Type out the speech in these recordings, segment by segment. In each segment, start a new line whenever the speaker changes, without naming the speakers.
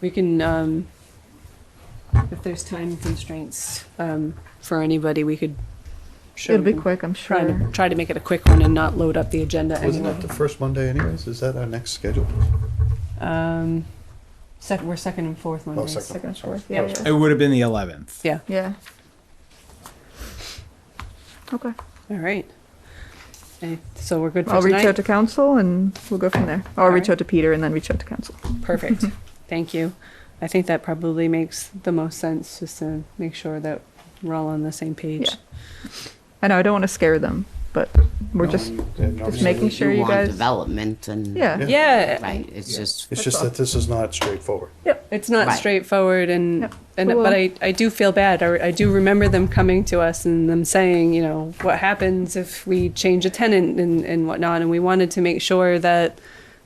We can, um, if there's time constraints, um, for anybody, we could show
It'll be
them.
quick, I'm
Try to,
sure.
try to make it a quick one and not load up the agenda
Wasn't
anyway.
that the first Monday anyways? Is that our next schedule?
Um, sec, we're second and fourth Mondays.
Oh, second.
Second, fourth,
Yeah.
yeah, yeah.
It would have been the 11th.
Yeah,
Yeah. Okay,
all right. Okay, So we're good for
I'll reach out
tonight?
to council and we'll go from there. Or I'll reach
Alright.
out to Peter and then reach out to council.
Perfect, thank you. I think that probably makes the most sense, just to make sure that we're all on the same page.
Yeah. I know, I don't want to scare them, but we're
No,
just,
you- they have no
just
reason.
making sure you
want
guys-
Development and.
yeah,
Yeah,
Right, it's just,
It's just that this is not straightforward.
it's not
Right.
straightforward and,
Yep.
and,
We
but
will.
I, I do feel bad. I, I do remember them coming to us and them saying, you know, what happens if we change a tenant and, and whatnot? And we wanted to make sure that,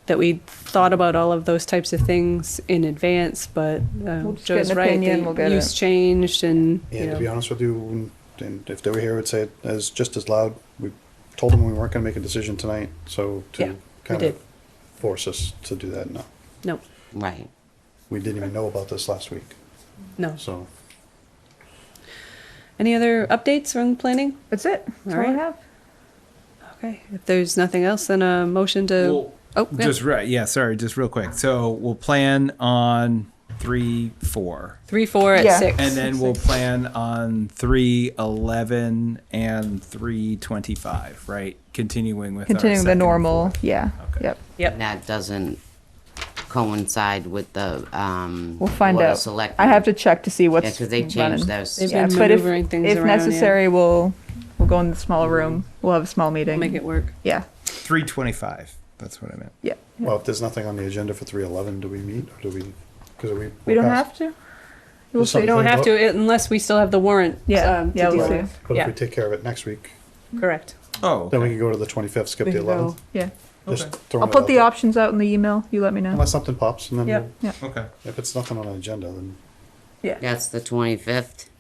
that we thought about all of those types of things in advance, but, uh,
We'll just get
Joe's
an
right,
opinion, we'll
the
get
use
it.
changed and, you
And to be
know,
honest with you, and if they were here, would say it as just as loud. We told them we weren't going to make a decision tonight, so
Yeah,
to
we
kind
did.
of force us to do that, no.
no,
right.
We didn't even know about this last week,
no.
so.
Any other updates on planning?
that's it. That's all I
Alright.
have.
Okay, if there's nothing else, then a motion to,
Well,
oh, yeah.
Just right. Yeah, sorry, just real quick. So we'll plan on 3 4.
three, four at
Yeah.
six.
And then we'll plan on 3 11 and 3 25, right? Continuing with our
Continuing the
second and
normal,
fourth.
yeah,
Okay.
yep.
Yep,
That doesn't coincide with the, um.
We'll find
Board of
out. I
Selectmen.
have to check to see what's
Yeah, because they
running.
changed those.
They've
Yeah,
been
but if-
maneuvering things
If
around, yeah. Mm-hmm.
necessary, we'll, we'll go in the smaller room. We'll have a small meeting.
make it work.
Yeah,
325. That's what I meant.
yeah.
Well, if there's nothing on the agenda for three eleven, do we meet or do we? Because we
We don't
we're
have
past-
to? We'll
There's
see.
something
We don't
Think
have
about-
to it- unless we still have the warrant.
Yeah,
um, to
yeah, we'll
deal
see.
with.
But if
Yeah,
we take care of it next week,
correct.
Oh,
then we
okay.
can go to the twenty fifth, skip
We
the
can go-
eleventh.
Yeah.
Just throwing
I'll
it
put
out
the
there.
options out in the email. You let me know.
Unless something pops, and then
Yep.
we'll-
okay.
if it's nothing on the agenda, then
Yeah.
That's the twenty-fifth,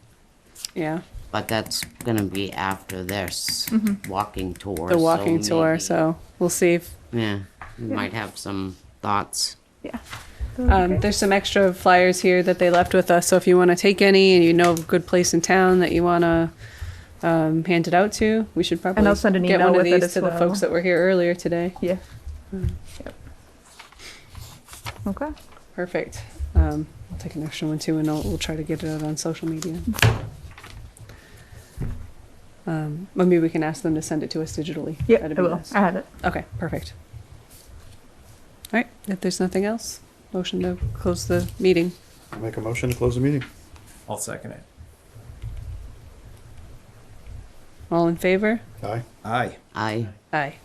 Yeah,
but that's gonna be after this
Mm-hmm.
walking tour.
the
so
walking tour,
maybe-
so we'll see. if-
Yeah, you might have some thoughts.
Yeah.
Um, there's some extra flyers here that they left with us, so if you want to take any and you know of a good place in town that you want to um, hand it out to, we should probably
send an
get
email
one of
with it
these
as
to the
well.
folks that were here earlier today.
Yeah. Yep. Okay.
Perfect. Um, I'll take an extra one too, and I'll, we'll try to get it out on social media. Um, well, maybe we can ask them to send it to us digitally.
Yeah,
That'd
I
be
will.
best.
I have it.
Okay, perfect. All right, if there's nothing else, motion to close the meeting.
I'll make a motion to close the meeting.
I'll second it.
All in favor?
Aye.
Aye.
I.
Aye.